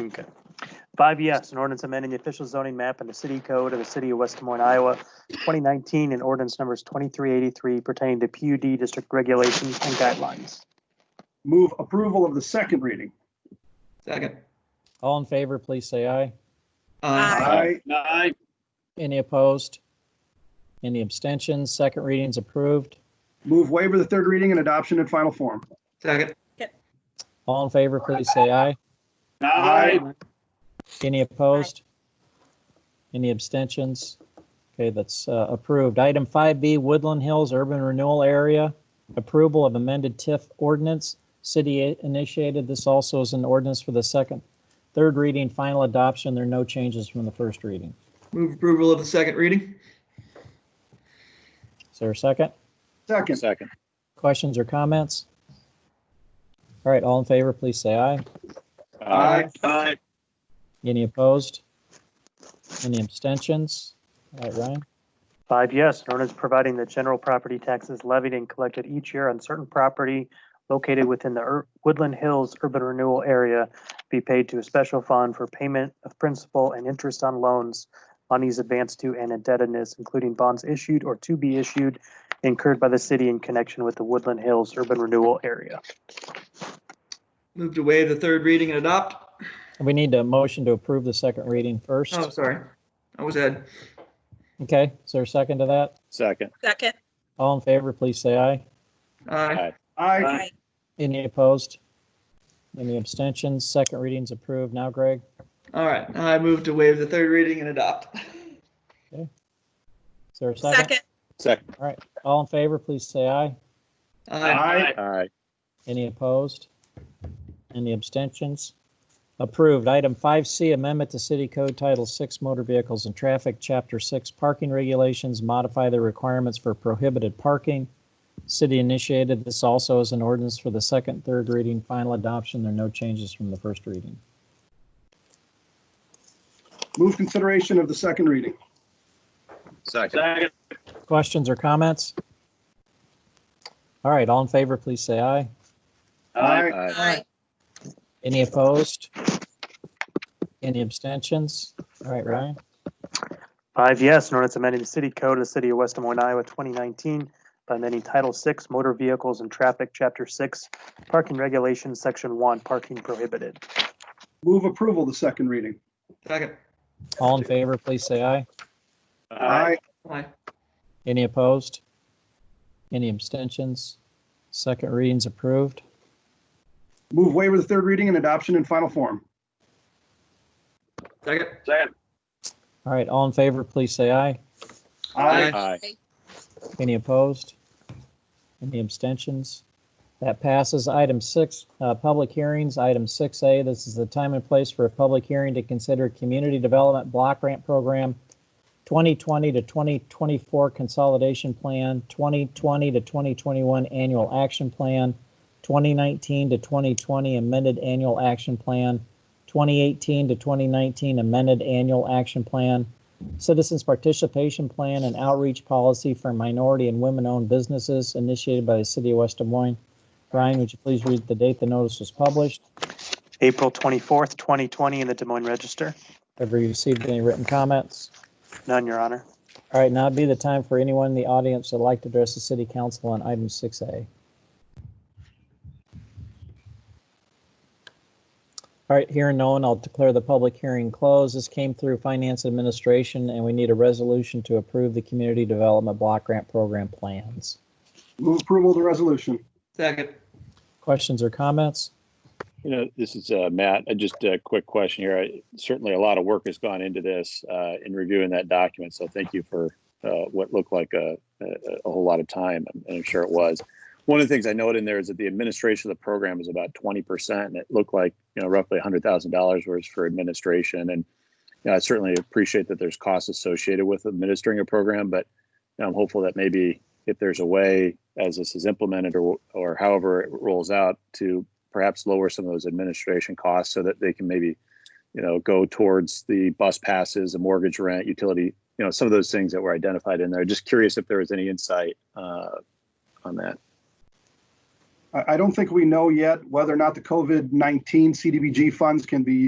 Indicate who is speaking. Speaker 1: Okay. Five yes, an ordinance amending the official zoning map and the city code of the city of West Des Moines, Iowa, 2019, and ordinance numbers 2383 pertaining to PUD district regulations and guidelines.
Speaker 2: Move approval of the second reading.
Speaker 3: Second.
Speaker 4: All in favor, please say aye.
Speaker 3: Aye.
Speaker 2: Aye. Aye.
Speaker 4: Any opposed? Any abstentions? Second reading's approved.
Speaker 2: Move waiver of the third reading and adoption in final form.
Speaker 3: Second.
Speaker 4: All in favor, please say aye.
Speaker 2: Aye.
Speaker 4: Any opposed? Any abstentions? Okay, that's uh, approved. Item 5B, Woodland Hills Urban Renewal Area, approval of amended TIF ordinance. City initiated. This also is an ordinance for the second, third reading, final adoption. There are no changes from the first reading.
Speaker 3: Move approval of the second reading.
Speaker 4: Is there a second?
Speaker 2: Second.
Speaker 4: Questions or comments? All right, all in favor, please say aye.
Speaker 2: Aye. Aye.
Speaker 4: Any opposed? Any abstentions? All right, Ryan,
Speaker 1: Five yes, an ordinance providing that general property taxes levied and collected each year on certain property located within the Ur- Woodland Hills Urban Renewal Area be paid to a special fund for payment of principal and interest on loans, monies advanced to and indebtedness, including bonds issued or to be issued incurred by the city in connection with the Woodland Hills Urban Renewal Area.
Speaker 3: Move to waive the third reading and adopt.
Speaker 4: we need a motion to approve the second reading first.
Speaker 3: Oh, sorry. I was Ed.
Speaker 4: Okay, is there a second to that?
Speaker 5: Second.
Speaker 6: Second.
Speaker 4: All in favor, please say aye.
Speaker 3: Aye.
Speaker 2: Aye.
Speaker 4: Any opposed? Any abstentions? Second reading's approved. Now, Greg,
Speaker 3: All right. I move to waive the third reading and adopt.
Speaker 4: is there a second?
Speaker 6: Second.
Speaker 5: Second.
Speaker 4: All in favor, please say aye.
Speaker 3: Aye.
Speaker 5: Aye.
Speaker 4: Any opposed? Any abstentions? Approved. Item 5C, Amendment to City Code Title 6 Motor Vehicles and Traffic, Chapter 6 Parking Regulations, modify the requirements for prohibited parking. City initiated this also as an ordinance for the second, third reading, final adoption. There are no changes from the first reading.
Speaker 2: Move consideration of the second reading.
Speaker 5: Second.
Speaker 4: Questions or comments? All right, all in favor, please say aye.
Speaker 2: Aye.
Speaker 5: Aye.
Speaker 6: Aye.
Speaker 4: Any opposed? Any abstentions? All right, Ryan?
Speaker 1: Five yes, an ordinance amending the city code of the city of West Des Moines, Iowa, 2019 by amending Title 6 Motor Vehicles and Traffic, Chapter 6 Parking Regulations, Section 1, Parking Prohibited.
Speaker 2: Move approval of the second reading.
Speaker 3: Second.
Speaker 4: All in favor, please say aye.
Speaker 2: Aye.
Speaker 3: Aye.
Speaker 4: Any opposed? Any abstentions? Second reading's approved.
Speaker 2: Move waiver of the third reading and adoption in final form.
Speaker 3: Second.
Speaker 4: All right, all in favor, please say aye.
Speaker 3: Aye.
Speaker 5: Aye.
Speaker 4: Any opposed? Any abstentions? That passes. Item six, uh, public hearings. Item six A, this is the time and place for a public hearing to consider Community Development Block Grant Program 2020 to 2024 Consolidation Plan, 2020 to 2021 Annual Action Plan, 2019 to 2020 Amended Annual Action Plan, 2018 to 2019 Amended Annual Action Plan, Citizens Participation Plan and Outreach Policy for Minority and Women-Owned Businesses initiated by the City of West Des Moines. Brian, would you please read the date the notice was published?
Speaker 1: April 24th, 2020, in the Des Moines Register.
Speaker 4: Have we received any written comments?
Speaker 1: None, Your Honor.
Speaker 4: All right, now would be the time for anyone in the audience that'd like to address the City Council on item 6A. All right, here and no one, I'll declare the public hearing closed. This came through Finance Administration, and we need a resolution to approve the Community Development Block Grant Program plans.
Speaker 2: Move approval of the resolution.
Speaker 3: Second.
Speaker 4: Questions or comments?
Speaker 5: You know, this is uh, Matt. Uh, Just a quick question here. I- Certainly, a lot of work has gone into this uh, in reviewing that document. So thank you for uh, what looked like a, a, a whole lot of time, and I'm sure it was. One of the things I noted in there is that the administration of the program is about 20%, and it looked like you know roughly $100,000 worth for administration. And you know, I certainly appreciate that there's costs associated with administering a program, but you know, I'm hopeful that maybe if there's a way as this is implemented or or however it rolls out to perhaps lower some of those administration costs so that they can maybe, you know, go towards the bus passes, the mortgage rent, utility, you know, some of those things that were identified in there. Just curious if there was any insight uh, on that.
Speaker 2: I, I don't think we know yet whether or not the COVID-19 CDBG funds can be